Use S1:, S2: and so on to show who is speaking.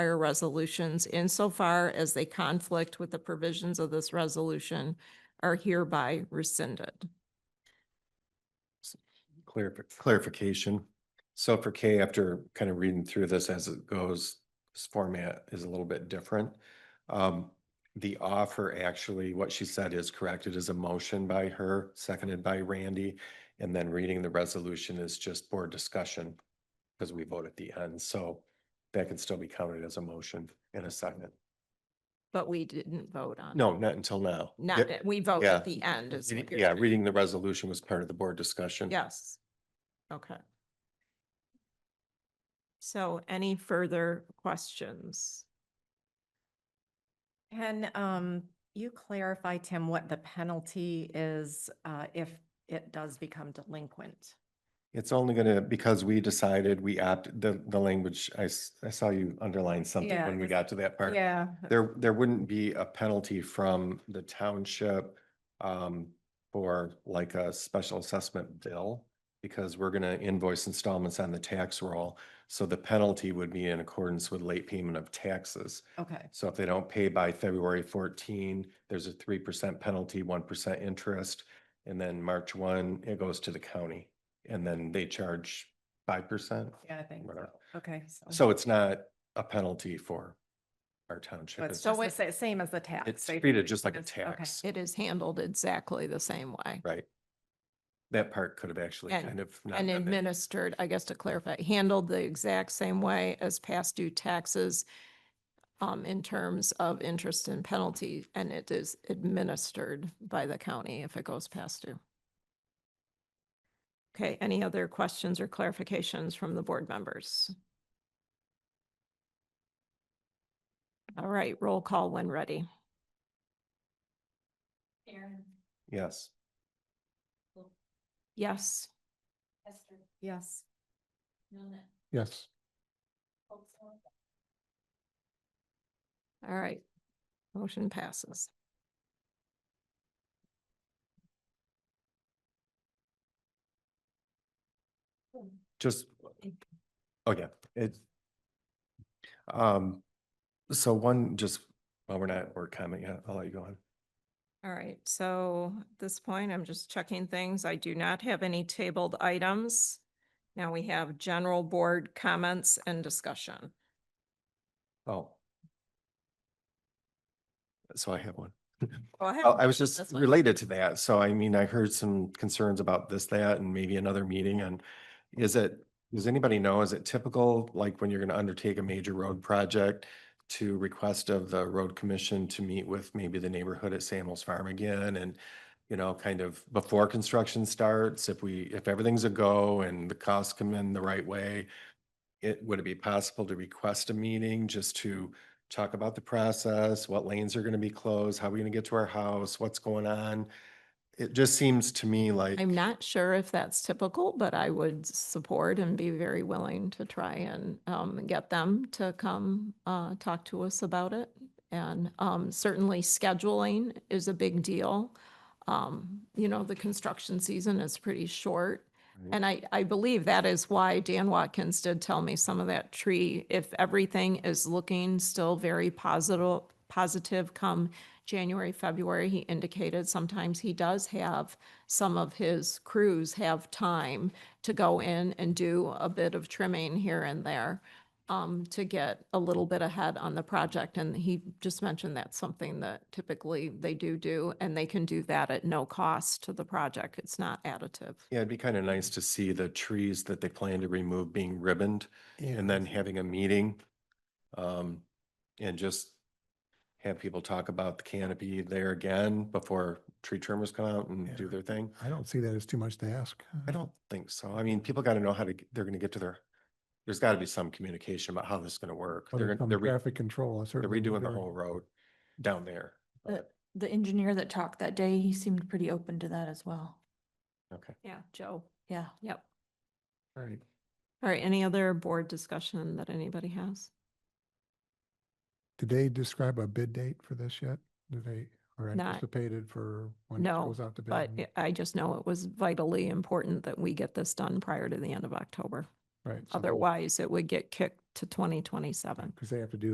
S1: prior resolutions insofar as they conflict with the provisions of this resolution are hereby rescinded.
S2: Clarif- clarification. So for K, after kind of reading through this as it goes, this format is a little bit different. Um, the offer actually, what she said is correct. It is a motion by her, seconded by Randy. And then reading the resolution is just board discussion because we vote at the end. So that can still be counted as a motion in a second.
S1: But we didn't vote on. it.
S2: No, not until now.
S1: Not,
S2: Yeah,
S1: we vote at
S2: yeah.
S1: the end. is what you're
S2: Yeah,
S1: saying.
S2: reading the resolution was part of the board discussion.
S1: Yes. Okay. So any further questions?
S3: Can um, you clarify, Tim, what the penalty is uh, if it does become delinquent?
S2: It's only gonna, because we decided, we opt, the, the language, I, s- I saw you underline something
S3: Yeah,
S2: when we
S3: it's-
S2: got to that part.
S3: Yeah.
S2: There, there wouldn't be a penalty from the township, um, for like a special assessment bill. Because we're gonna invoice installments on the tax roll, so the penalty would be in accordance with late payment of taxes.
S3: Okay,
S2: So if they don't pay by February fourteen, there's a three percent penalty, one percent interest. And then March one, it goes to the county and then they charge five percent.
S3: yeah, I think,
S2: Whatever.
S3: so. okay.
S2: So it's not a penalty for our township.
S3: But
S2: It's-
S1: So
S3: so
S1: it-
S3: it's the sa- same as the tax.
S2: It's
S3: They-
S2: treated just like a
S3: it's- okay.
S2: tax,
S1: It is handled exactly the same way
S2: right? That part could have actually
S1: And-
S2: kind of. not
S1: and
S2: been there.
S1: administered, I guess to clarify, handled the exact same way as past due taxes um, in terms of interest and penalty, and it is administered by the county if it goes past due. Okay, any other questions or clarifications from the board members? All right, roll call when ready.
S4: Aaron,
S2: Yes,
S1: Yes,
S4: Hester,
S3: Yes,
S4: Milne.
S5: Yes,
S4: Holtzman,
S1: all right. Motion passes.
S2: just, oh yeah, it's. Um, so one, just, well, we're not, we're comment yet. I'll let you go on.
S1: All right, so at this point, I'm just checking things. I do not have any tabled items. Now we have general board comments and discussion.
S2: Oh. So I have one.
S1: Go
S2: Oh,
S1: ahead.
S2: I was just
S1: That's fine.
S2: related to that. So I mean, I heard some concerns about this, that, and maybe another meeting and is it, does anybody know, is it typical, like when you're gonna undertake a major road project to request of the road commission to meet with maybe the neighborhood at Samuel's Farm again and you know, kind of before construction starts, if we, if everything's a go and the costs come in the right way, it, would it be possible to request a meeting just to talk about the process, what lanes are gonna be closed, how are we gonna get to our house, what's going on? It just seems to me like,
S1: I'm not sure if that's typical, but I would support and be very willing to try and um, get them to come uh, talk to us about it. And um, certainly scheduling is a big deal. Um, You know, the construction season is pretty short.
S2: Right.
S1: And I, I believe that is why Dan Watkins did tell me some of that tree, if everything is looking still very positive, positive come January, February, he indicated sometimes he does have some of his crews have time to go in and do a bit of trimming here and there um, to get a little bit ahead on the project. And he just mentioned that's something that typically they do do, and they can do that at no cost to the project. It's not additive.
S2: yeah, it'd be kind of nice to see the trees that they plan to remove being ribboned and then having a meeting. Um, and just have people talk about the canopy there again before tree trimmers come out and do
S5: Yeah.
S2: their thing.
S5: I don't see that as too much to ask. uh,
S2: I don't think so. I mean, people gotta know how to, g- they're gonna get to their, there's gotta be some communication about how this is gonna work.
S5: Other
S2: They're,
S5: than
S2: gonna- they're, re-
S5: Traffic control. I
S2: they're
S5: certainly
S2: redoing the
S5: agree.
S2: whole road down there.
S6: The, the engineer that talked that day, he seemed pretty open to that as well.
S2: Okay.
S1: Yeah, Joe.
S6: Yeah.
S1: Yep.
S5: All right.
S1: All right, any other board discussion that anybody has?
S5: Did they describe a bid date for this yet? Do they, or
S1: Not-
S5: anticipated for when it
S1: No,
S5: goes out to bid?
S1: But
S5: and-
S1: I I just know it was vitally important that we get this done prior to the end of October.
S5: Right.
S1: Otherwise, it would get kicked to 2027.
S5: Because they have to do